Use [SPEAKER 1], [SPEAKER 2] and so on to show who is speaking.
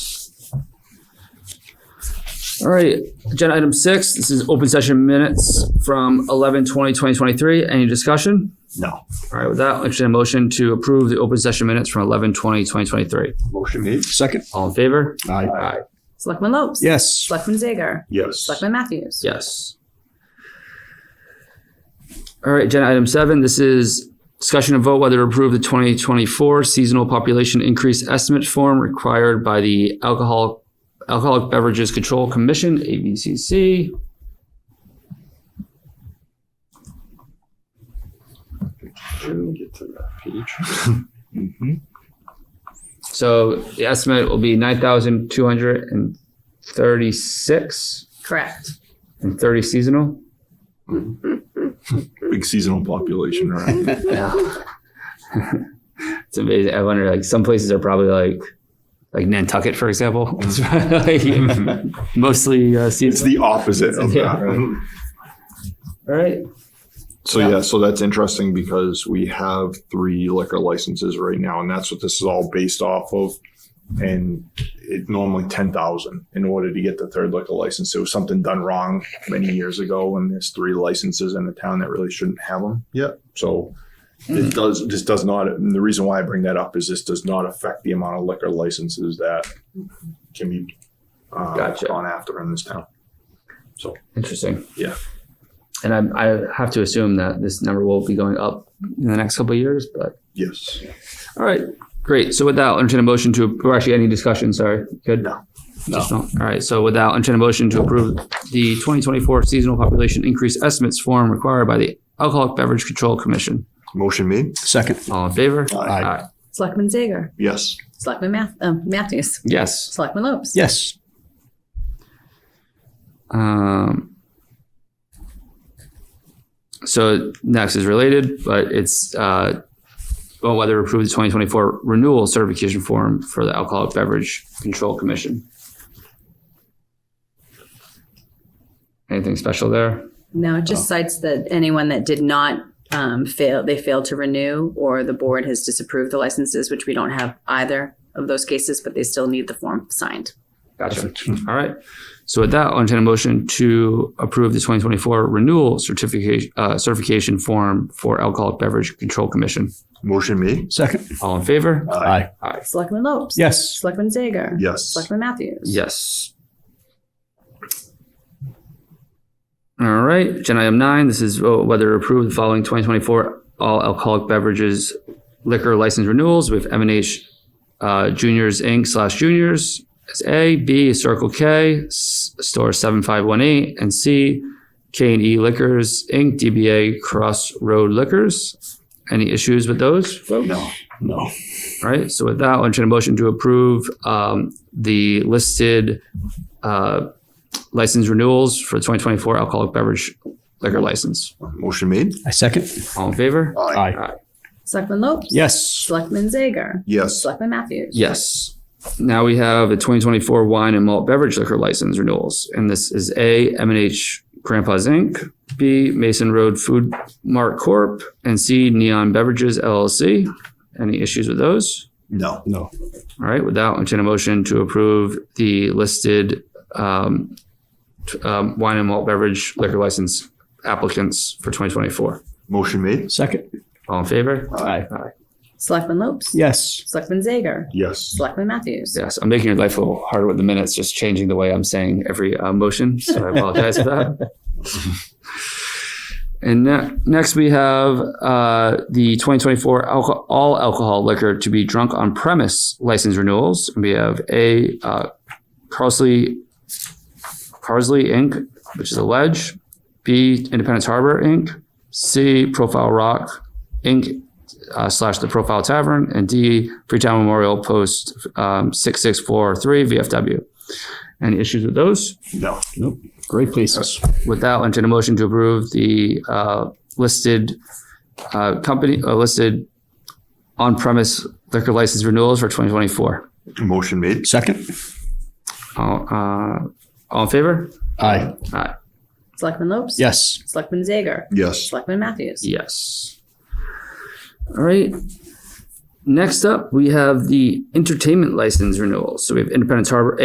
[SPEAKER 1] All right, agenda item six, this is open session minutes from 11 20 2023. Any discussion?
[SPEAKER 2] No.
[SPEAKER 1] All right, with that, I'll entertain a motion to approve the open session minutes from 11 20 2023.
[SPEAKER 2] Motion made.
[SPEAKER 3] Second.
[SPEAKER 1] All in favor?
[SPEAKER 3] Aye.
[SPEAKER 1] Aye.
[SPEAKER 4] Selectman Lopes.
[SPEAKER 3] Yes.
[SPEAKER 4] Selectman Zager.
[SPEAKER 2] Yes.
[SPEAKER 4] Selectman Matthews.
[SPEAKER 1] Yes. All right, agenda item seven, this is discussion and vote whether to approve the twenty twenty-four seasonal population increase estimate form required by the Alcohol, Alcoholic Beverages Control Commission, ABCC.
[SPEAKER 2] Get to that page.
[SPEAKER 1] So the estimate will be nine thousand two hundred and thirty-six
[SPEAKER 4] Correct.
[SPEAKER 1] and thirty seasonal.
[SPEAKER 5] big seasonal population, right?
[SPEAKER 1] Yeah. it's amazing. I wonder, like, some places are probably like, like Nantucket, for example. It's like mostly uh,
[SPEAKER 5] It's
[SPEAKER 1] seasonal.
[SPEAKER 5] the opposite of
[SPEAKER 1] Yeah.
[SPEAKER 5] that.
[SPEAKER 1] All right.
[SPEAKER 5] So yeah, so that's interesting because we have three liquor licenses right now, and that's what this is all based off of. And it normally ten thousand in order to get the third liquor license. It was something done wrong many years ago, and there's three licenses in the town that really shouldn't have them yet. So it does. This does not. And the reason why I bring that up is this does not affect the amount of liquor licenses that can be uh,
[SPEAKER 1] Gotcha.
[SPEAKER 5] gone after in this town.
[SPEAKER 1] Interesting.
[SPEAKER 5] Yeah.
[SPEAKER 1] And I, I have to assume that this number will be going up in the next couple of years, but
[SPEAKER 5] Yes.
[SPEAKER 1] all right, great. So with that, I'll entertain a motion to, or actually any discussion, sorry. Good?
[SPEAKER 5] No.
[SPEAKER 1] No. All right. So with that, I'll entertain a motion to approve the 2024 seasonal population increase estimates form required by the Alcoholic Beverage Control Commission.
[SPEAKER 5] Motion made?
[SPEAKER 3] Second.
[SPEAKER 1] All in favor?
[SPEAKER 3] Aye.
[SPEAKER 4] Selectman Zager.
[SPEAKER 5] Yes.
[SPEAKER 4] Selectman Math- um, Matthews.
[SPEAKER 1] Yes.
[SPEAKER 4] Selectman Lopes.
[SPEAKER 3] Yes.
[SPEAKER 1] Um, so next is related, but it's uh, well, whether to approve the 2024 renewal certification form for the Alcoholic Beverage Control Commission. Anything special there?
[SPEAKER 4] No, it just cites that anyone that did not um, fail, they failed to renew, or the board has disapproved the licenses, which we don't have either of those cases, but they still need the form signed.
[SPEAKER 1] Gotcha. All right. So with that, I'll entertain a motion to approve the 2024 renewal certification uh, certification form for Alcoholic Beverage Control Commission.
[SPEAKER 5] Motion made?
[SPEAKER 3] Second.
[SPEAKER 1] All in favor?
[SPEAKER 3] Aye.
[SPEAKER 4] Selectman Lopes.
[SPEAKER 3] Yes.
[SPEAKER 4] Selectman Zager.
[SPEAKER 5] Yes.
[SPEAKER 4] Selectman Matthews.
[SPEAKER 1] Yes. All right, agenda item nine, this is uh, whether to approve the following 2024 all alcoholic beverages liquor license renewals with M and H uh, Juniors Inc. slash Juniors as A, B, Circle K, S- Store 7518, and C, K and E Liquors Inc., DBA Crossroad Liquors. Any issues with those, folks?
[SPEAKER 2] No, no.
[SPEAKER 1] All right, so with that, I'll entertain a motion to approve um, the listed uh, license renewals for 2024 alcoholic beverage liquor license.
[SPEAKER 5] Motion made?
[SPEAKER 3] I second.
[SPEAKER 1] All in favor?
[SPEAKER 3] Aye.
[SPEAKER 4] Selectman Lopes.
[SPEAKER 3] Yes.
[SPEAKER 4] Selectman Zager.
[SPEAKER 5] Yes.
[SPEAKER 4] Selectman Matthews.
[SPEAKER 1] Yes. Now we have the 2024 wine and malt beverage liquor license renewals. And this is A, m and H Grandpa's Inc., B, Mason Road Food Mart Corp., and C, Neon Beverages LLC. Any issues with those?
[SPEAKER 5] No.
[SPEAKER 3] No.
[SPEAKER 1] All right, with that, I'll entertain a motion to approve the listed um, t- um, wine and malt beverage liquor license applicants for 2024.
[SPEAKER 5] Motion made?
[SPEAKER 3] Second.
[SPEAKER 1] All in favor?
[SPEAKER 3] Aye.
[SPEAKER 4] Selectman Lopes.
[SPEAKER 3] Yes.
[SPEAKER 4] Selectman Zager.
[SPEAKER 5] Yes.
[SPEAKER 4] Selectman Matthews.
[SPEAKER 1] Yes, I'm making your life a little harder with the minutes, just changing the way I'm saying every uh, motion. So I apologize for that. And ne- next we have uh, the 2024 alco- all alcohol liquor to be drunk on premise license renewals. We have a uh, Carsley Carsley Inc., which is a ledge. B Independence Harbor Inc. C Profile Rock Inc uh, slash the Profile Tavern, and D Freetown Memorial Post um, six six four three VFW. Any issues with those?
[SPEAKER 5] No.
[SPEAKER 3] Nope. Great places.
[SPEAKER 1] With that, I'll entertain a motion to approve the uh, listed uh, company uh, listed on premise liquor license renewals for twenty twenty four.
[SPEAKER 5] Motion made?
[SPEAKER 3] Second.
[SPEAKER 1] All, uh, all in favor?
[SPEAKER 3] Aye.
[SPEAKER 1] Aye.
[SPEAKER 4] Selectman Lopes.
[SPEAKER 3] Yes.
[SPEAKER 4] Selectman Zager.
[SPEAKER 5] Yes.
[SPEAKER 4] Selectman Matthews.
[SPEAKER 1] Yes. All right. Next up, we have the entertainment license renewals. So we have Independence Harbor